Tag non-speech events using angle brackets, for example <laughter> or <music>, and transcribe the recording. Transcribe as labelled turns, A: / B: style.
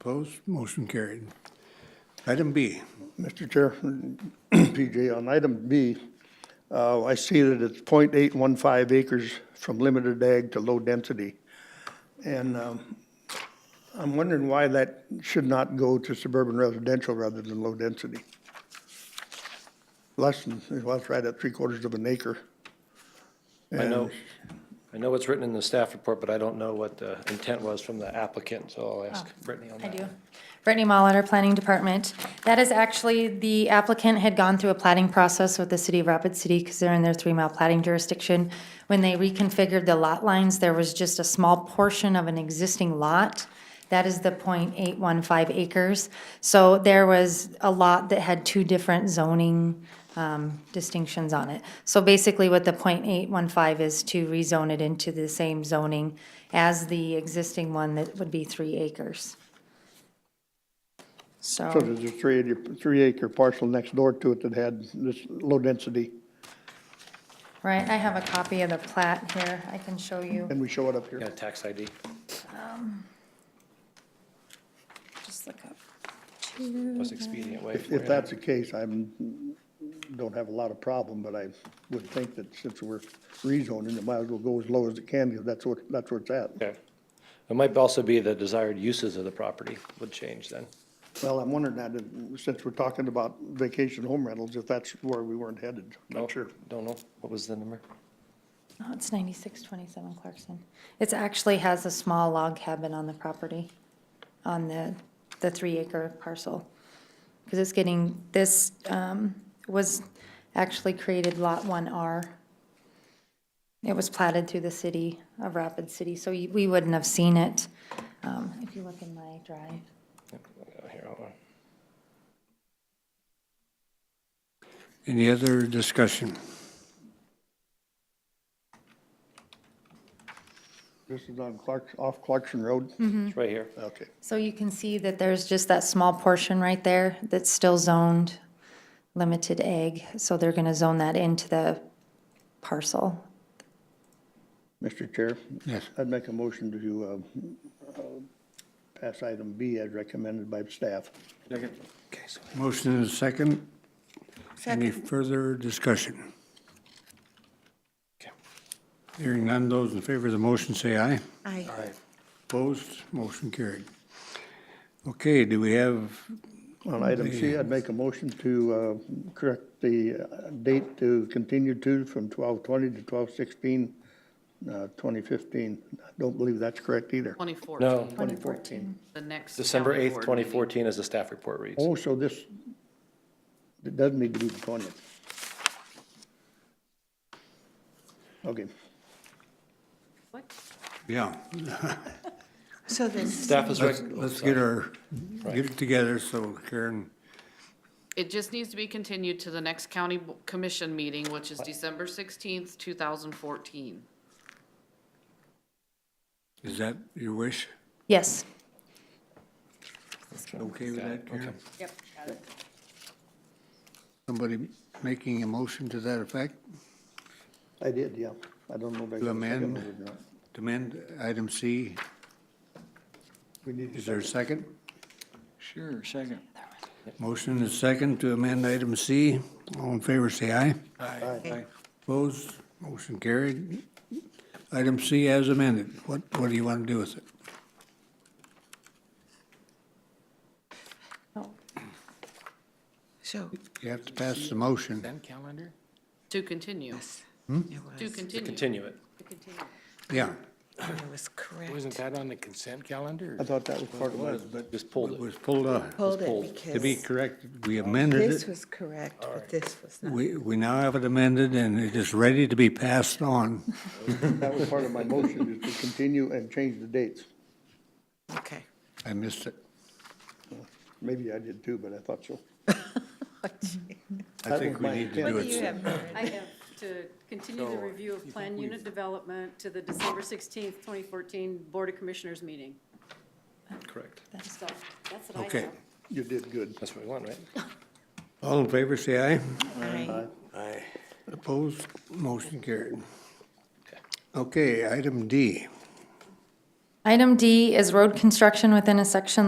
A: Opposed? Motion carried. Item B,
B: Mr. Chair, <clears throat> PJ, on item B, uh, I see that it's 0.815 acres from limited ag to low density. And, um, I'm wondering why that should not go to suburban residential rather than low density. Less than, well, it's right at three quarters of an acre.
C: I know,
B: And-
C: I know it's written in the staff report, but I don't know what the intent was from the applicant, so I'll ask Brittany on
D: Oh, I
C: that.
D: do. Brittany Molitor, Planning Department. That is actually, the applicant had gone through a plating process with the city of Rapid City because they're in their three-mile plating jurisdiction. When they reconfigured the lot lines, there was just a small portion of an existing lot. That is the 0.815 acres. So there was a lot that had two different zoning um, distinctions on it. So basically what the 0.815 is to rezone it into the same zoning as the existing one that would be three acres.
B: So
D: So,
B: there's a three acre, three acre parcel next door to it that had this low density,
D: right, I have a copy of the plat here, I can show you,
B: and we show it up here.
C: Yeah, tax ID.
D: just look up. Mm-hmm.
C: Most expedient way.
B: If, if that's the case, I'm, don't have a lot of problem, but I would think that since we're rezoning, it might as well go as low as it can, because that's what, that's where it's at.
C: Okay. It might also be the desired uses of the property would change then.
B: Well, I'm wondering that, uh, since we're talking about vacation home rentals, if that's where we weren't headed.
C: Not sure. Don't know. What was the number?
D: No, Oh, it's ninety-six twenty-seven Clarkson. It's actually has a small log cabin on the property, on the, the three acre parcel. Because it's getting, this, um, was actually created Lot One R. It was platted through the city of Rapid City, so you- we wouldn't have seen it, um, if you look in my drive.
C: Oh, Here, hold on.
A: any other discussion?
B: This is on Clark, off Clarkson Road?
D: Hmm.
C: It's right here.
B: Okay.
D: So you can see that there's just that small portion right there that's still zoned limited egg. So they're going to zone that into the parcel.
B: Mr. Chair?
A: Yes.
B: I'd make a motion to, um, uh, pass item B as recommended by staff.
C: Okay, so
A: Motion and a second. Any further discussion?
C: Okay.
A: Hearing none, those in favor of the motion say aye.
E: Aye.
A: Opposed? Motion carried. Okay, do we have,
B: On item C, I'd make a motion to uh, correct the uh, date to continue to from 12/20 to 12/16, uh, 2015. I Don't believe that's correct either.
E: 2014.
C: No,
D: Twenty fourteen.
E: The next.
C: December
E: county
C: 8th,
E: board
C: 2014 as the staff report reads.
B: Oh, so this, it doesn't need to be the 20th. Okay,
E: meeting. What?
A: yeah,
F: So this,
C: Staff is,
A: let's,
C: rec- oh,
A: let's
C: sorry.
A: get our, get it together so Karen,
E: It just needs to be continued to the next county bo- commission meeting, which is December 16th, 2014.
A: is that your wish?
D: Yes.
A: Okay with that, Karen?
E: Yep.
A: Somebody making a motion to that effect?
B: I did, yeah. I don't know if I got a second
A: amend?
B: one or not.
A: To amend item C,
B: We need to
A: is there a second?
G: Sure, second.
A: Motion is second to amend item C. All in favor, say aye.
G: Aye.
A: Opposed? Motion carried. Item C as amended. What, what do you want to do with it?
F: Oh. so,
A: You have to pass the motion.
G: Then calendar?
E: To continue,
F: it
E: to
F: was,
E: continue.
C: Continue it.
A: Yeah.
F: it was correct.
G: Wasn't that on the consent calendar?
B: I thought that was part of it.
A: but.
C: Just pulled it.
A: Was pulled up.
F: Hold
C: pulled.
F: it
A: To be
F: because
A: corrected, we amended
F: this
A: it.
F: was correct, but this was not.
A: We, we now have it amended and it is ready to be passed on.
B: That was part of my motion, is to continue and change the dates.
F: Okay.
A: I missed it.
B: Maybe I did too, but I thought so.
A: I
B: That
A: think
B: was
A: we
B: my
A: need to do
B: intent.
H: What do
A: it.
H: you
A: soon.
H: have, Mary? I have to continue the review of plan unit development to the December 16th, 2014 Board of Commissioners meeting.
C: Correct.
H: So that's what I
A: Okay.
H: have.
B: You did good.
C: That's what we want, right?
A: All in favor, say aye.
F: Aye.
A: Aye. Opposed, motion carried. Okay, item D.
D: Item D is road construction within a section